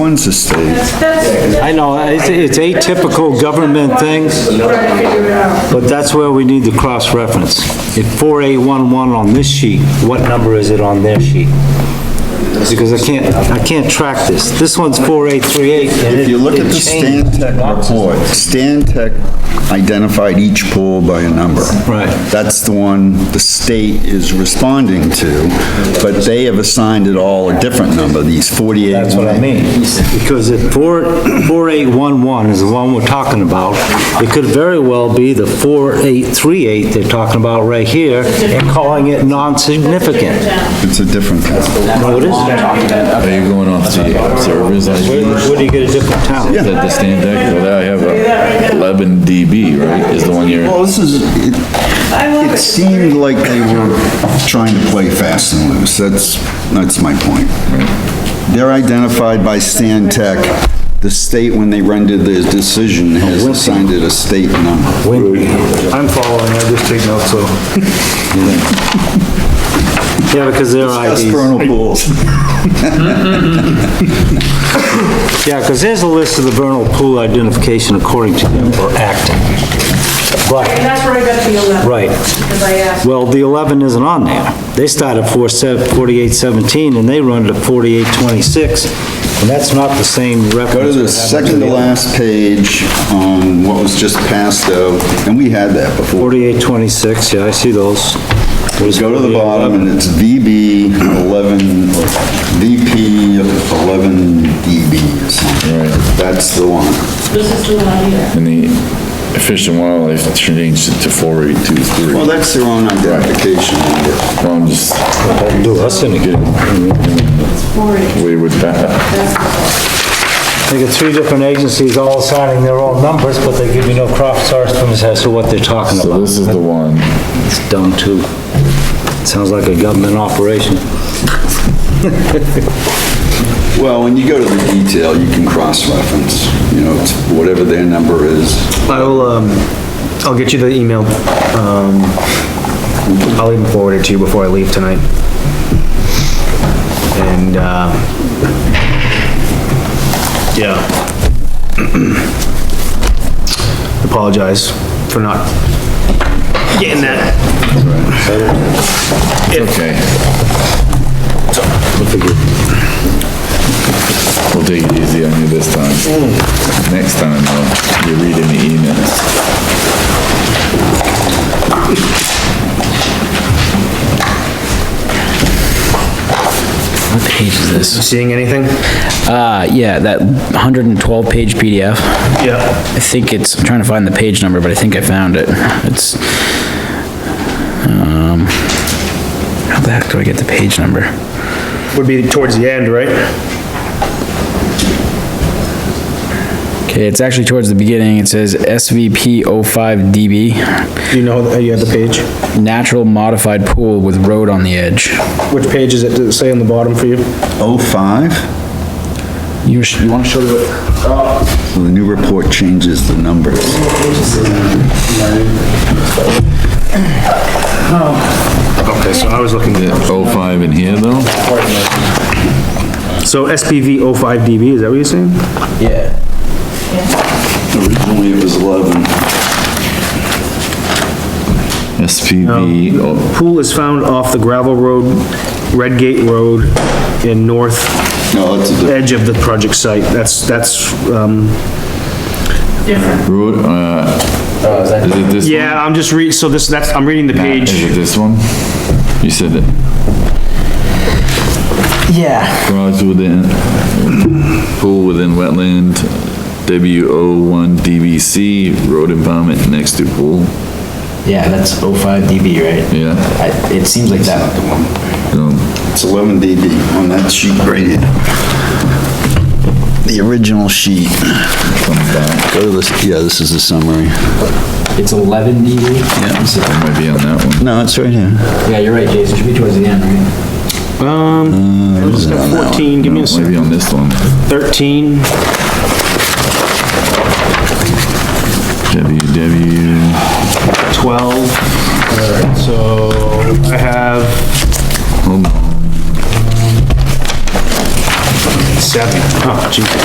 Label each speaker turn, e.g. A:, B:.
A: owns the state.
B: That's,
C: I know, it's, it's atypical government things,
B: trying to figure it out.
C: but that's where we need the cross-reference. If 4811 on this sheet, what number is it on their sheet? Because I can't, I can't track this. This one's 4838. and
A: If you
C: it-
A: look at
C: it
A: the Stan
C: changed.
A: Tech report, Stan Tech identified each pool by a number.
C: Right.
A: That's the one the state is responding to, but they have assigned it all a different number, these 48.
C: That's what I mean. Because if 4, 4811 is the one we're talking about, it could very well be the 4838 they're talking about right here and calling it non-significant.
A: It's a different count.
C: No, it isn't.
D: Are you going off the observer's
C: Where
D: ID?
C: where do you get a different town?
D: Is that the stand deck? Well, I have a 11 dB, right, is the one you're,
A: Well, this is, it
B: I love
A: it
B: it.
A: seemed like they were trying to play fast and loose, that's, that's my point. They're identified by Stan Tech. The state, when they rendered their decision, has assigned it a state number.
C: I'm following, I just take notes, so. Yeah, because their IDs,
A: Vernal pools.
C: yeah, because there's a list of the vernal pool identification according to them, or acting.
B: And
C: But,
B: that's where I got the 11.
C: right,
B: Because I asked.
C: well, the 11 isn't on there. They start at 4817, and they run to 4826, and that's not the same reference.
A: Go to
C: we're
A: the
C: having
A: second to
C: the other-
A: last page, um, what was just passed out, and we had that before.
C: 4826, yeah, I see those. What is
A: Go to the bottom,
C: 4811?
A: and it's VB 11, or VP 11DB E or something.
D: Right.
A: That's the one.
B: This is the one here.
D: and the Fish and Wildlife changed it to 4823.
A: Well, that's their own identification number.
D: Well, I'm just
C: Do us any good.
D: weird with that.
C: They got three different agencies all signing their own numbers, but they give you no cross reference as to what they're talking
D: So
C: about.
D: this is the one.
C: It's dumb too. Sounds like a government operation.
A: Well, when you go to the detail, you can cross-reference, you know, it's whatever their number is.
E: I will, um, I'll get you the email. Um, I'll even forward it to you before I leave tonight. And, uh, yeah. Apologize for not getting that.
D: It's okay. We'll take it easy on you this time. Next time, though, you're reading the emails.
F: What page is this?
E: Seeing anything?
F: Uh, yeah, that 112-page PDF.
E: Yeah.
F: I think it's, I'm trying to find the page number, but I think I found it. It's, um, how the heck do I get the page number?
E: Would be towards the end, right?
F: Okay, it's actually towards the beginning. It says SVP 05DB,
E: Do you know, that you have the page?
F: natural modified pool with road on the edge.
E: Which page is it? Does it say on the bottom for you?
A: Oh, 05?
F: You, sh- you wanna show the,
A: Well, the new report changes the numbers.
E: Okay, so I was looking.
D: The 05 in here, though?
E: So SPV 05DB, is that what you're saying?
F: yeah,
A: Originally, it was 11.
D: SPV, oh,
E: Pool is found off the gravel road, Redgate Road, in north
A: No, that's a different.
E: edge of the project site. That's, that's, um,
D: road, uh, is it this one?
E: yeah, I'm just read, so this, that's, I'm reading the
D: Is
E: page.
D: it this one? You said that
F: yeah,
D: garage within, pool within wetland, WO one DBC, road impoundment next to pool,
F: yeah, that's 05DB, right?
D: yeah.
F: I, it seems like that.
A: It's 11 dB on that sheet right here. The original sheet. Go to this, yeah, this is the summary.
F: It's 11DB?
D: That might be on that one.
A: No, it's right here.
F: Yeah, you're right, Jason, it should be towards the end, right?
E: Um, let's go 14, give me a
D: Might
E: second,
D: be on this one.
E: 13,
D: WW,
E: 12. All right, so I have
D: hold on,
E: seven. Huh.
C: cheap.